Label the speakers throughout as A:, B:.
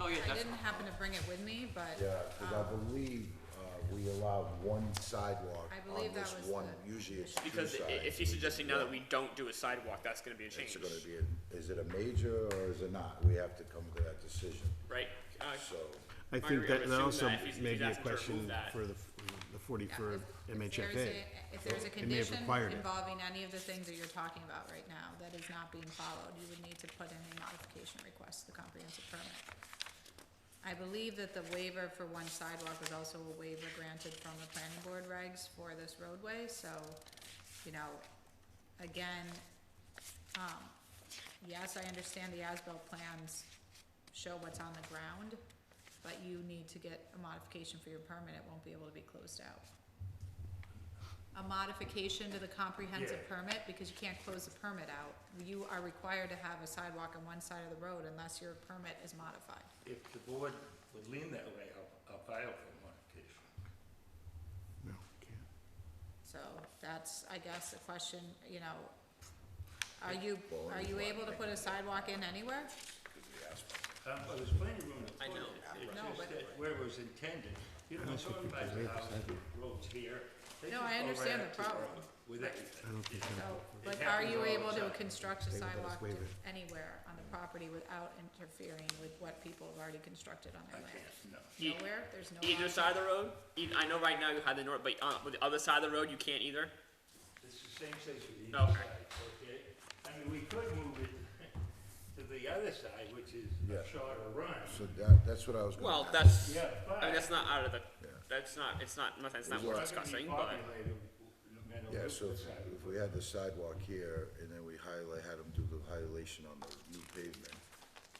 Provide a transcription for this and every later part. A: I didn't happen to bring it with me, but,
B: Yeah, because I
A: um,
B: believe uh, we allow one sidewalk
A: I
B: on
A: believe that
B: this
A: was
B: one,
A: the-
B: usually it's two
C: Because i-
B: sides.
C: if he's suggesting now that we don't do a sidewalk, that's gonna be a
B: It's
C: change,
B: gonna be, a- is it a major or is it not? We have to come to that decision,
C: right? Uh,
B: so.
D: I
C: Margaret,
D: think
C: I
D: that
C: would
D: and
C: assume
D: also
C: that if he's- if
D: may
C: he's
D: be a
C: asking to remove
D: question
C: that-
D: for the, f- the
A: yeah,
D: forty-third
A: if- if there's
D: MHFA.
A: a- If there's a
D: It may have
A: condition
D: required it.
A: involving any of the things that you're talking about right now that is not being followed, you would need to put in a modification request to the comprehensive permit. I believe that the waiver for one sidewalk was also a waiver granted from the planning board regs for this roadway, so, you know, again, um, yes, I understand the as-built plans show what's on the ground, but you need to get a modification for your permit, it won't be able to be closed out. A modification to the comprehensive permit, because you can't close the permit out. You are required to have a sidewalk on one side of the road unless your permit is modified.
E: If the board would lean that way, I'll, I'll file for modification.
D: No, we can't.
A: So that's, I guess, a question, you know, are you, are you able to put a sidewalk in anywhere?
E: Um, well, there's planning room.
C: I know.
E: It's
A: No,
E: just
A: but-
E: that where it was intended, you know, it's owned by the house, roads here. They
A: No,
E: just
A: I
E: go right
A: understand
E: up
A: the
E: to road
A: problem.
E: With everything.
D: I don't think,
A: So,
D: that-
A: but
E: It
A: are you
E: happens all
A: able
E: the
A: to
E: time.
A: construct a
D: They would let us
A: sidewalk
D: waive it.
A: anywhere on the property without interfering with what people have already constructed on
E: I
A: their land?
E: can't, no.
C: E-
A: Nowhere, there's no.
C: Either
A: law.
C: side of the road, eith- I know right now you have the north, but uh, with the other side of the road, you can't either.
E: It's the same place with the east
C: Okay.
E: side, okay? I mean, we could move it to the other side, which is a
B: Yeah.
E: shorter run.
B: So that, that's what I was gonna.
C: Well,
B: ask.
C: that's,
E: Yeah,
C: I mean,
E: but.
C: that's not out of the,
B: Yeah.
C: that's not, it's not, nothing, it's not
B: It's
C: worth
B: not
C: discussing, but.
B: Yeah, so if, if we had the sidewalk here and then we highlight, had them do the highlightation on the new pavement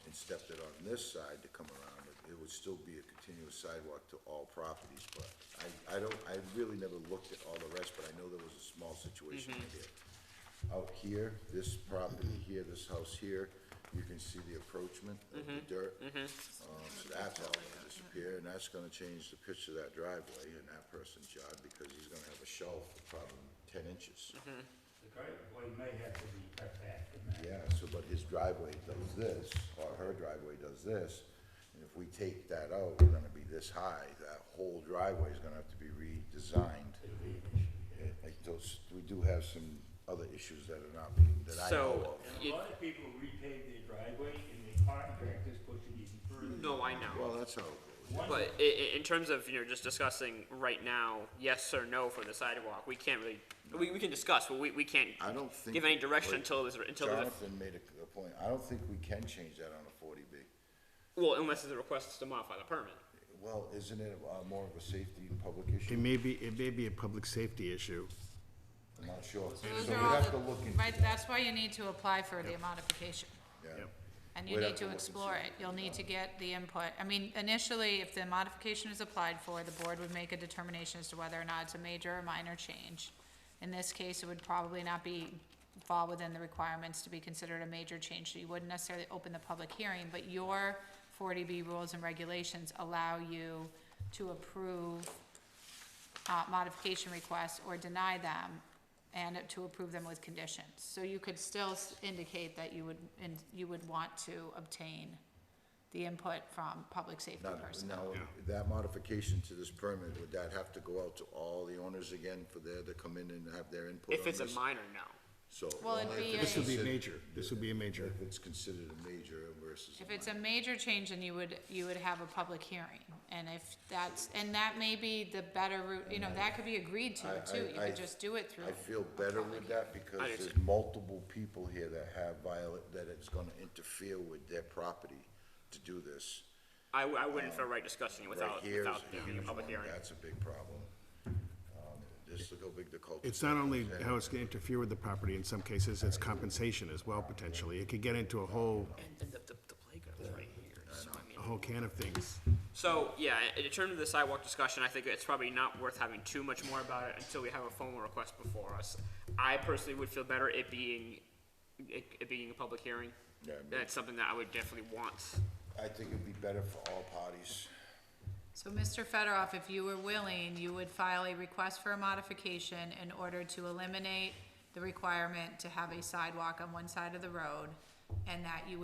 B: and stepped it on this side to come around, it- it would still be a continuous sidewalk to all properties, but I, I don't, I really never looked at all the rest, but I know there was a small situation here. Out here, this property here, this house here, you can see the approachment of the dirt. Um, so that's all gonna disappear, and that's gonna change the pitch of that driveway in that person's yard, because he's gonna have a shelf of probably ten inches.
E: The driveway may have to be cut back in that.
B: Yeah, so, but his driveway does this, or her driveway does this, and if we take that out, we're gonna be this high, that whole driveway is gonna have to be redesigned.
E: It'll be an issue.
B: And, like, those, we do have some other issues that are not being, that I know
C: So,
B: of.
E: And
C: you-
E: a lot of people repave their driveway and the contractors push it even further.
C: no, I know.
B: Well, that's how it goes.
E: One-
C: But i- i- in terms of, you know, just discussing right now, yes or no for the sidewalk, we can't really, we, we can discuss, but we, we can't
B: I don't think.
C: give any direction
B: like,
C: until there's, until there's, a-
B: Jonathan made a, a point, I don't think we can change that on a forty B.
C: well, unless there's a request to modify the permit.
B: Well, isn't it uh, more of a safety and public
D: it
B: issue?
D: may be, it may be a public safety issue.
B: I'm not sure. So
A: Those
B: we'd
A: are all
B: have to
A: the-
B: look into
A: Right,
B: that.
A: that's why you need to apply for the modification.
B: Yeah.
A: And you
B: We'd
A: need
B: have to
A: to
B: look and
A: explore
B: see what
A: it, you'll need to get the input, I mean, initially, if the modification is applied for, the board would make a determination as to whether or not it's a major or minor change. In this case, it would probably not be, fall within the requirements to be considered a major change, so you wouldn't necessarily open the public hearing, but your forty B rules and regulations allow you to approve uh, modification requests or deny them and to approve them with conditions. So you could still s- indicate that you would, and you would want to obtain the input from public safety
B: Now,
A: personnel.
B: now, that modification to this permit, would that have to go out to all the owners again for there to come in and have their input on
C: If it's a
B: this?
C: minor, no.
B: So.
A: Well, it'd
B: only if
A: be
B: it's
D: This would be
B: considered-
D: major, this would be a major.
B: If it's considered a major versus.
A: If it's a
B: minor.
A: major change, then you would, you would have a public hearing, and if that's, and that may be the better route, you know, that could be agreed to,
B: I-
A: too, you
B: I- I-
A: could just do it through.
B: I feel
A: a
B: better
A: public
B: with that because
C: I do
B: there's
C: too.
B: multiple people here that have violet, that it's gonna interfere with their property to do this.
C: I, w- I wouldn't feel right discussing it
B: Right
C: without,
B: here is
C: without
B: a
C: there being a
B: huge
C: public
B: one,
C: hearing.
B: that's a big problem. Um, Just look how big the cul
D: It's not only how it's gonna interfere with the property, in some cases, it's compensation as well, potentially. It could get into a whole,
C: And then the, the, the playground's right here, so I mean.
D: a whole can of things.
C: So, yeah, in terms of the sidewalk discussion, I think it's probably not worth having too much more about it until we have a formal request before us. I personally would feel better it being, it, it being a public hearing.
B: Yeah, I mean-
C: That's something that I would definitely want.
B: I think it'd be better for all parties.
A: So, Mr. Federoff, if you were willing, you would file a request for a modification in order to eliminate the requirement to have a sidewalk on one side of the road, and that you would